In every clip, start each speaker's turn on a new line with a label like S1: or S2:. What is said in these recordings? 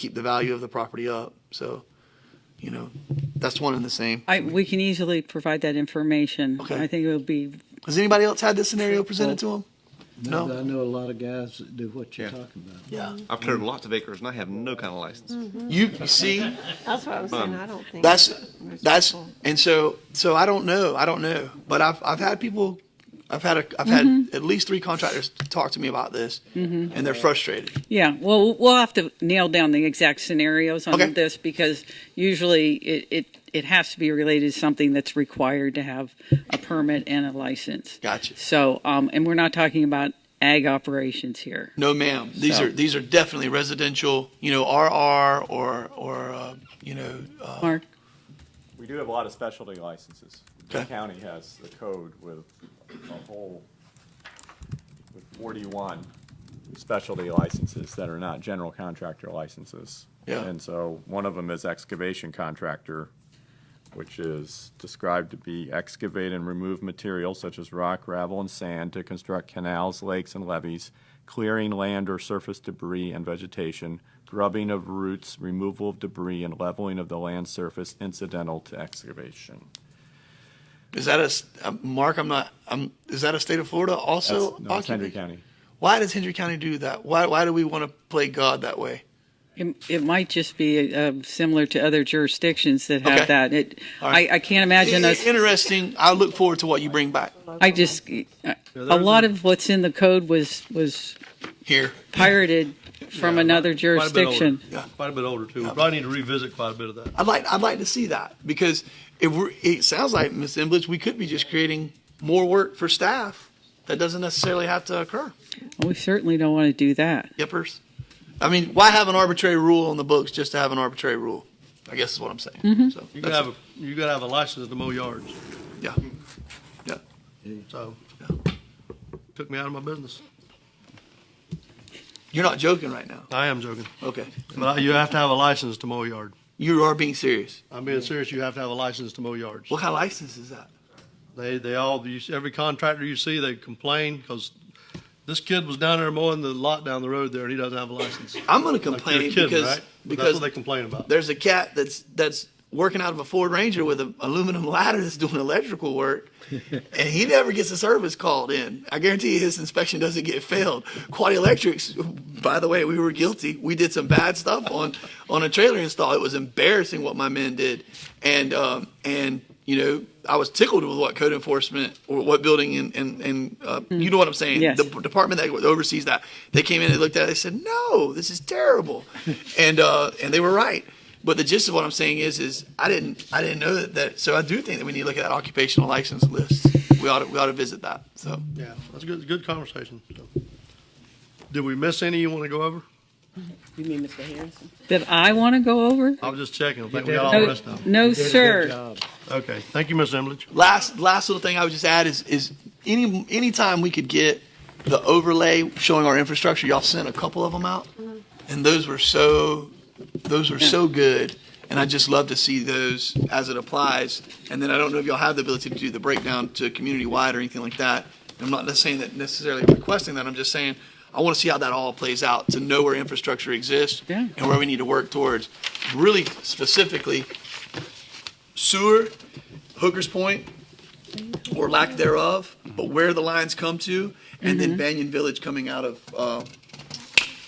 S1: keep the value of the property up. So, you know, that's one and the same.
S2: I, we can easily provide that information.
S1: Okay.
S2: I think it would be,
S1: Has anybody else had this scenario presented to them? No.
S3: No, but I know a lot of guys that do what you're
S4: Yeah.
S3: talking about.
S1: Yeah.
S4: I've cleared lots of acres and I have no kind of license.
S1: You you see,
S5: That's what I was saying, I don't think.
S1: that's
S5: it's
S1: that's
S5: possible.
S1: and so so I don't know. I don't know. But I've I've had people I've had a, I've had at least three contractors talk to me about this and they're frustrated.
S2: yeah, well, we'll have to nail down the exact scenarios on
S1: Okay.
S2: this because usually it, it, it has to be related to something that's required to have a permit and a license.
S1: Gotcha.
S2: So, um, and we're not talking about ag operations here.
S1: No ma'am. These
S2: So-
S1: are these are definitely residential, you know, RR or or uh, you know, uh,
S2: Mark?
S6: We do have a lot of specialty licenses. The
S1: Okay.
S6: county has the code with a whole, with forty-one specialty licenses that are not general contractor licenses.
S1: Yeah.
S6: And so one of them is excavation contractor, which is described to be excavate and remove materials such as rock, gravel, and sand to construct canals, lakes, and levees, clearing land or surface debris and vegetation, grubbing of roots, removal of debris, and leveling of the land surface incidental to excavation.
S1: is that a s- uh, Mark? I'm not. I'm. Is that a state of Florida also?
S6: That's, no, it's Henry
S1: occupied?
S6: County.
S1: Why does Hendry County do that? Why why do we want to play God that way?
S2: It, it might just be uh, similar to other jurisdictions that have
S1: Okay.
S2: that. It,
S1: All right.
S2: I, I can't imagine us.
S1: Interesting. I look forward to what you bring back
S2: I just a lot of what's in the code was was
S1: here.
S2: pirated from
S7: Yeah,
S2: another
S7: quite a bit older.
S2: jurisdiction.
S1: Yeah.
S7: Quite a bit older too. We Probably need to revisit quite a bit of that.
S1: I'd like I'd like to see that because if we're, it sounds like Ms. Emblich, we could be just creating more work for staff that doesn't necessarily have to occur.
S2: We certainly don't want to do that.
S1: Yippers. I mean, why have an arbitrary rule on the books just to have an arbitrary rule? I guess is what I'm saying.
S2: Mm-hmm.
S1: So
S7: You
S1: that's
S7: gotta have,
S1: it.
S7: a you gotta have a license to mow yards,
S1: yeah, yeah.
S7: so.
S1: Yeah.
S7: Took me out of my business.
S1: You're not joking right now.
S7: I am joking,
S1: Okay,
S7: but I- you have to have a license to mow a yard.
S1: you are being serious.
S7: I'm being serious, you have to have a license to mow yards.
S1: What kind of license is that?
S7: They, they all, you see- every contractor you see, they complain, because this kid was down there mowing the lot down the road there, and he doesn't have a license.
S1: I'm going to
S7: Like, you're
S1: complain
S7: kidding,
S1: because
S7: right? But That's
S1: because
S7: what they complain about.
S1: there's a cat that's that's working out of a Ford Ranger with an aluminum ladder that's doing electrical work, and he never gets a service called in. I guarantee you his inspection doesn't get failed. Quality Electrics, by the way, we were guilty. We did some bad stuff on on a trailer install. It was embarrassing what my men did, and um, and you know I was tickled with what code enforcement or what building and and, and uh, you know what I'm saying.
S2: Yes.
S1: The department that oversees that they came in and looked at it. They said, "No, this is terrible," and uh, and they were right. But the gist of what I'm saying is, is I didn't, I didn't know that. that so I do think that we need to look at that occupational license list. We ought to, we ought to visit that. So
S7: Yeah, that's a good, good conversation, so. Did we miss any you wanna go over?
S8: You mean Mr. Harrison?
S2: That I want to go over?
S7: I was just checking, I think we got all Oh, the
S2: No,
S7: rest of them.
S2: no,
S3: Did a good
S2: sir.
S3: job.
S7: Okay, thank you, Ms. Emlich.
S1: last, last little thing I would just add is, is any, any time we could get the overlay showing our infrastructure, y'all sent a couple of them out, and those were so, those were so good. And I just love to see those as it applies. And then I don't know if y'all have the ability to do the breakdown to community wide or anything like that. I'm not just saying that necessarily requesting that. I'm just saying I want to see how that all plays out to know where infrastructure exists
S2: Yeah.
S1: and where we need to work towards. Really specifically, sewer, Hooker's Point, or lack thereof, but where the lines come to, and then Banyan Village coming out of uh,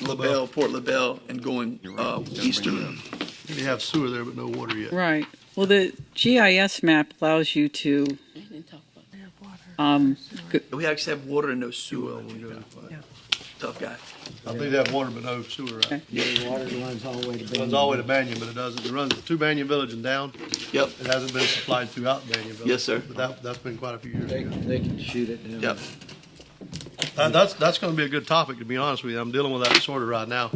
S1: LaBelle, Port LaBelle, and going uh, eastern.
S7: We have sewer there, but no water yet.
S2: Right. Well, the GIS map allows you to
S8: They didn't talk about that.
S2: um,
S1: We actually have water and no sewer.
S7: Well, we do.
S1: Tough guy.
S7: I think they have water, but no sewer. out.
S2: Okay.
S3: The water runs all the way to Bend.
S7: Runs all the way to Banyan, but it doesn't, it runs to Banyan Village and down.
S1: Yep.
S7: It hasn't been supplied throughout Banyan Village.
S1: Yes, sir.
S7: But that, that's been quite a few years
S3: They,
S7: ago.
S3: they can shoot it down.
S1: Yep.
S7: Uh, That's, that's gonna be a good topic, to be honest with you. I'm dealing with that sort of right now.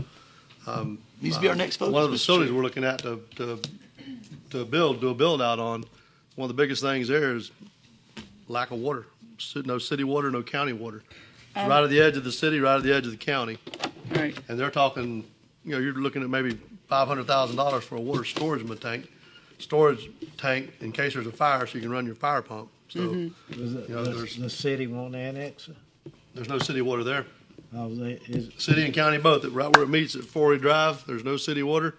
S7: Um, uh,
S1: Needs to be our next focus.
S7: One of the
S1: Mr.
S7: facilities
S1: Chair.
S7: we're looking at to, to, to build, do a build out on, one of the biggest things there is lack of water. Si- No city water, no county water.
S2: Um,
S7: It's right at the edge of the city, right at the edge of the county.
S2: right.
S7: And they're talking, you know, you're looking at maybe five hundred thousand dollars for a water storage ma- tank, storage tank in case there's a fire, so you can run your fire pump. So
S3: Does it-
S7: You know,
S3: does
S7: there's-
S3: the city won't annex it?
S7: there's no city water there.
S3: Oh, they, is,
S7: City and county both, right where it meets at Forey Drive, there's no city water.